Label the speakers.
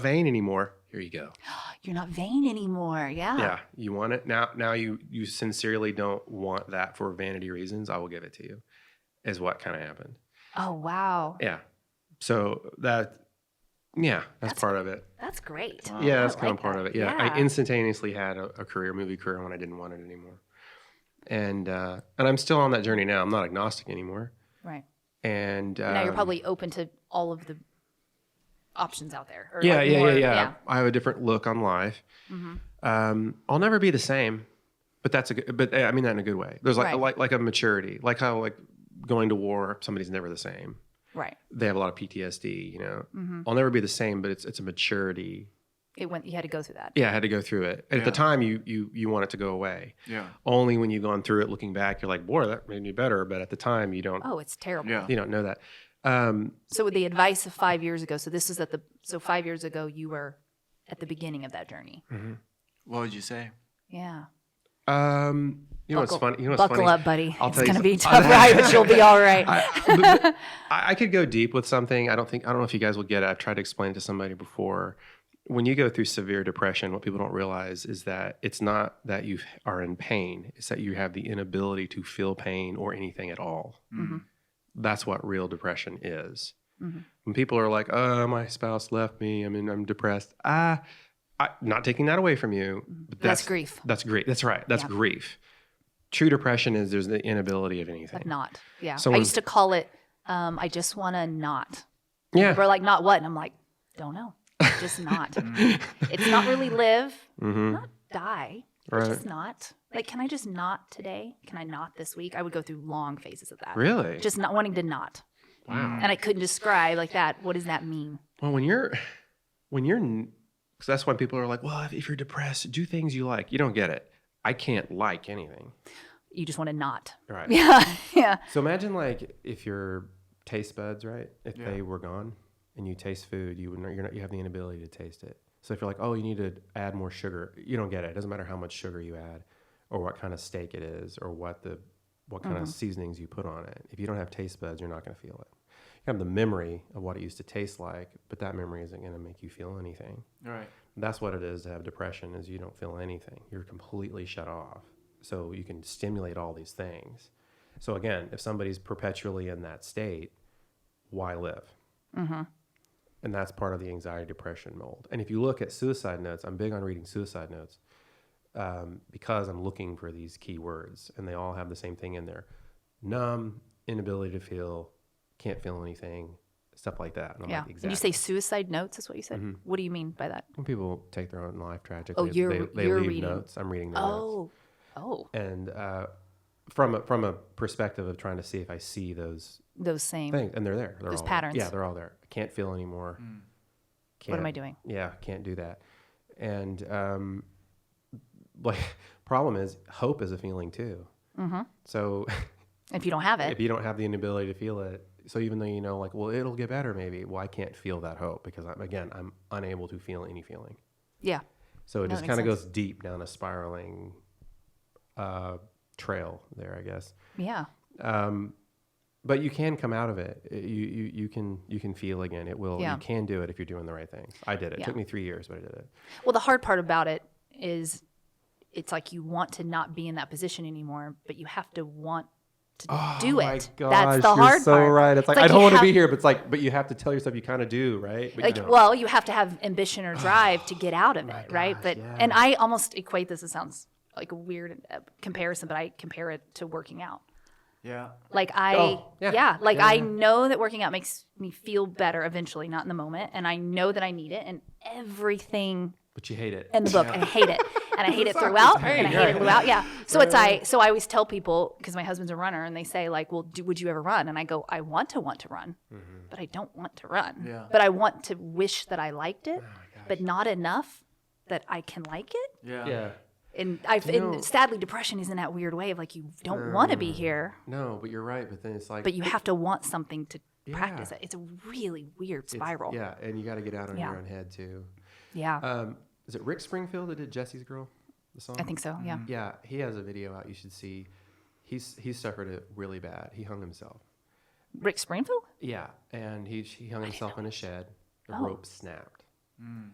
Speaker 1: vain anymore. Here you go.
Speaker 2: You're not vain anymore. Yeah.
Speaker 1: Yeah, you want it now. Now you you sincerely don't want that for vanity reasons. I will give it to you. Is what kind of happened.
Speaker 2: Oh, wow.
Speaker 1: Yeah. So that, yeah, that's,
Speaker 2: That's-
Speaker 1: part of it.
Speaker 2: That's great.
Speaker 3: Wow.
Speaker 1: Yeah,
Speaker 2: I
Speaker 1: that's kind
Speaker 2: like
Speaker 1: of part
Speaker 2: that.
Speaker 1: of it. Yeah. I
Speaker 2: Yeah.
Speaker 1: instantaneously had a, a career, movie career, when I didn't want it anymore, and uh, and I'm still on that journey now. I'm not agnostic anymore,
Speaker 2: Right.
Speaker 1: and um,
Speaker 3: now you're probably open to all of the options out there. or,
Speaker 1: yeah,
Speaker 3: like,
Speaker 1: yeah,
Speaker 3: more-
Speaker 1: yeah, yeah, I have a different look on life.
Speaker 3: Mm-hmm.
Speaker 2: Mhm.
Speaker 1: Um, I'll never be the same, but that's a good, but uh, I mean that in a good way. There's like
Speaker 2: Right.
Speaker 1: like like a maturity, like how like going to war, somebody's never the same.
Speaker 2: Right.
Speaker 1: They have a lot of PTSD, you know.
Speaker 2: Mhm.
Speaker 1: I'll never be the same, but it's it's a maturity.
Speaker 3: Mm-hmm. It went. You had to go through that.
Speaker 1: Yeah, I had to go through it. At
Speaker 3: Yeah.
Speaker 1: the time, you you you want it to go away.
Speaker 4: Yeah.
Speaker 1: Only when you've gone through it, looking back, you're like, boy, that made me better. But at the time, you don't
Speaker 3: Oh, it's terrible.
Speaker 4: Yeah.
Speaker 1: you don't know that. Um,
Speaker 3: So with the advice of five years ago. So this is at the. So five years ago, you were at the beginning of that journey.
Speaker 4: What would you say?
Speaker 3: Yeah.
Speaker 1: um, you know what's
Speaker 3: Buckle-
Speaker 1: funny? You know what's
Speaker 3: Buckle
Speaker 1: funny?
Speaker 3: up, buddy.
Speaker 1: I'll
Speaker 3: it's
Speaker 1: tell you
Speaker 3: gonna be a
Speaker 1: some-
Speaker 3: tough ride, but you'll be all right.
Speaker 1: I, but- but I I could go deep with something. I don't think I don't know if you guys will get it. I've tried to explain it to somebody before. When you go through severe depression, what people don't realize is that it's not that you are in pain; it's that you have the inability to feel pain or anything at all.
Speaker 4: Mm.
Speaker 1: That's what real depression is.
Speaker 3: Mhm.
Speaker 1: When people are like, "Oh, my spouse left me. I mean, I'm depressed." Ah, I, not taking that away from you, but
Speaker 3: That's grief,
Speaker 1: That's grief. That's right. That's
Speaker 3: Yeah.
Speaker 1: grief. True depression is there's the inability of anything.
Speaker 3: but not. Yeah. I
Speaker 1: Someone-
Speaker 3: used to call it. Um, I just want to not.
Speaker 1: yeah.
Speaker 3: People are like, not what? And I'm like, don't know. Just not. it's not really live,
Speaker 1: hmm
Speaker 3: not die.
Speaker 1: Right.
Speaker 3: Just not. Like, can I just not today? Can I not this week? I would go through long phases of that.
Speaker 1: Really? Hmm.
Speaker 3: Just Mm. not wanting to not.
Speaker 1: wow.
Speaker 3: And I couldn't describe like that. What does that mean?
Speaker 1: Well, when you're, when you're, because that's why people are like, well, if, if you're depressed, do things you like. You don't get it. I can't like anything.
Speaker 3: You just want to not.
Speaker 1: Right.
Speaker 3: Yeah. Yeah.
Speaker 1: So imagine like if your taste buds, right? If
Speaker 4: Yeah.
Speaker 1: they were gone and you taste food, you would not, you're not, you have the inability to taste it. So if you're like, oh, you need to add more sugar, you don't get it. It doesn't matter how much sugar you add, or what kind of steak it is, or what the what kind of seasonings you put on it. If you don't have taste buds, you're not going to feel it. You have the memory of what it used to taste like, but that memory isn't going to make you feel anything.
Speaker 4: All right.
Speaker 1: That's what it is to have depression is you don't feel anything. You're completely shut off. So you can stimulate all these things. So again, if somebody's perpetually in that state, why live? Mm-hmm. And that's part of the anxiety depression mold. And if you look at suicide notes, I'm big on reading suicide notes um, because I'm looking for these key words, and they all have the same thing in there: numb, inability to feel, can't feel anything, stuff like that. And I'm
Speaker 3: yeah.
Speaker 1: like,
Speaker 3: And you
Speaker 1: exactly. Mm-hmm.
Speaker 3: say suicide notes is what you said? What do you mean by that?
Speaker 1: When people take their own life tragically,
Speaker 3: Oh, you're-
Speaker 1: they, they
Speaker 3: you're
Speaker 1: leave
Speaker 3: reading.
Speaker 1: notes. I'm reading the notes.
Speaker 3: Oh. Oh.
Speaker 1: And uh, from, a, from a perspective of trying to see if I see those
Speaker 3: Those same.
Speaker 1: things, and they're there. They're
Speaker 3: Those
Speaker 1: all there.
Speaker 3: patterns.
Speaker 1: Yeah, they're all there. I can't feel anymore.
Speaker 3: What am I
Speaker 1: Can't-
Speaker 3: doing?
Speaker 1: Yeah, can't do that. And um, like, problem is, hope is a feeling too.
Speaker 3: Mhm.
Speaker 1: So
Speaker 3: If you don't have it.
Speaker 1: if you don't have the inability to feel it, so even though you know, like, well, it'll get better maybe, well, I can't feel that hope because I'm, again, I'm unable to feel any feeling.
Speaker 3: yeah.
Speaker 1: So it
Speaker 3: No,
Speaker 1: just
Speaker 3: that
Speaker 1: kind
Speaker 3: makes
Speaker 1: of goes deep down a spiraling uh, trail there, I guess.
Speaker 3: Yeah.
Speaker 1: Um, but you can come out of it. It- You, you you can you can feel again. It will.
Speaker 3: Yeah.
Speaker 1: You can do it if you're doing the right things. I did it. It
Speaker 3: Yeah.
Speaker 1: took me three years, but I did it.
Speaker 3: Well, the hard part about it is it's like you want to not be in that position anymore, but you have to want to do it.
Speaker 1: Oh My
Speaker 3: That's the
Speaker 1: you're
Speaker 3: hard
Speaker 1: so
Speaker 3: part.
Speaker 1: right. It's, like, I
Speaker 3: you
Speaker 1: don't want to
Speaker 3: have-
Speaker 1: be here, but it's like, but you have to tell yourself you kind of do, right? But you
Speaker 3: Like,
Speaker 1: don't.
Speaker 3: well, you have to have ambition or drive to get out of it,
Speaker 1: Oh
Speaker 3: right?
Speaker 1: gosh,
Speaker 3: But
Speaker 1: yeah.
Speaker 3: and I almost equate this. It sounds like a weird uh, comparison, but I compare it to working out.
Speaker 4: Yeah.
Speaker 3: Like I,
Speaker 1: Oh, yeah.
Speaker 3: yeah. like
Speaker 1: Yeah,
Speaker 3: I
Speaker 1: yeah.
Speaker 3: know that working out makes me feel better eventually, not in the moment, and I know that I need it, and everything
Speaker 1: but you hate it.
Speaker 3: in the book and I hate it. And I hate it throughout. And I hate it throughout. Yeah. So it's I so I always tell people because my husband's a runner and they say like, "Well, do, would you ever run?" And I go, "I want to want to run,
Speaker 1: Mm-hmm.
Speaker 3: but I don't want to run.
Speaker 4: Yeah.
Speaker 3: But I want to wish that I liked
Speaker 1: Oh
Speaker 3: it, but not enough that I can like it."
Speaker 4: Yeah.
Speaker 1: yeah.
Speaker 3: And I've
Speaker 1: You know- Mm.
Speaker 3: and sadly depression is in that weird way of like you don't want to be here,
Speaker 1: No, but you're right. But then it's like
Speaker 3: but you have to want something to practice
Speaker 1: Yeah.
Speaker 3: it. It's a really weird
Speaker 1: it's-
Speaker 3: spiral.
Speaker 1: Yeah, and you got to get out on
Speaker 3: Yeah.
Speaker 1: your own head too.
Speaker 3: Yeah.
Speaker 1: Um, is it Rick Springfield that did Jesse's Girl? The song.
Speaker 3: I think so. Yeah.
Speaker 1: Yeah, he has a video out you should see. He's he suffered it really bad. He hung himself.
Speaker 3: Rick Springfield?
Speaker 1: Yeah, and he he hung himself in a shed. The
Speaker 3: Oh.
Speaker 1: rope snapped.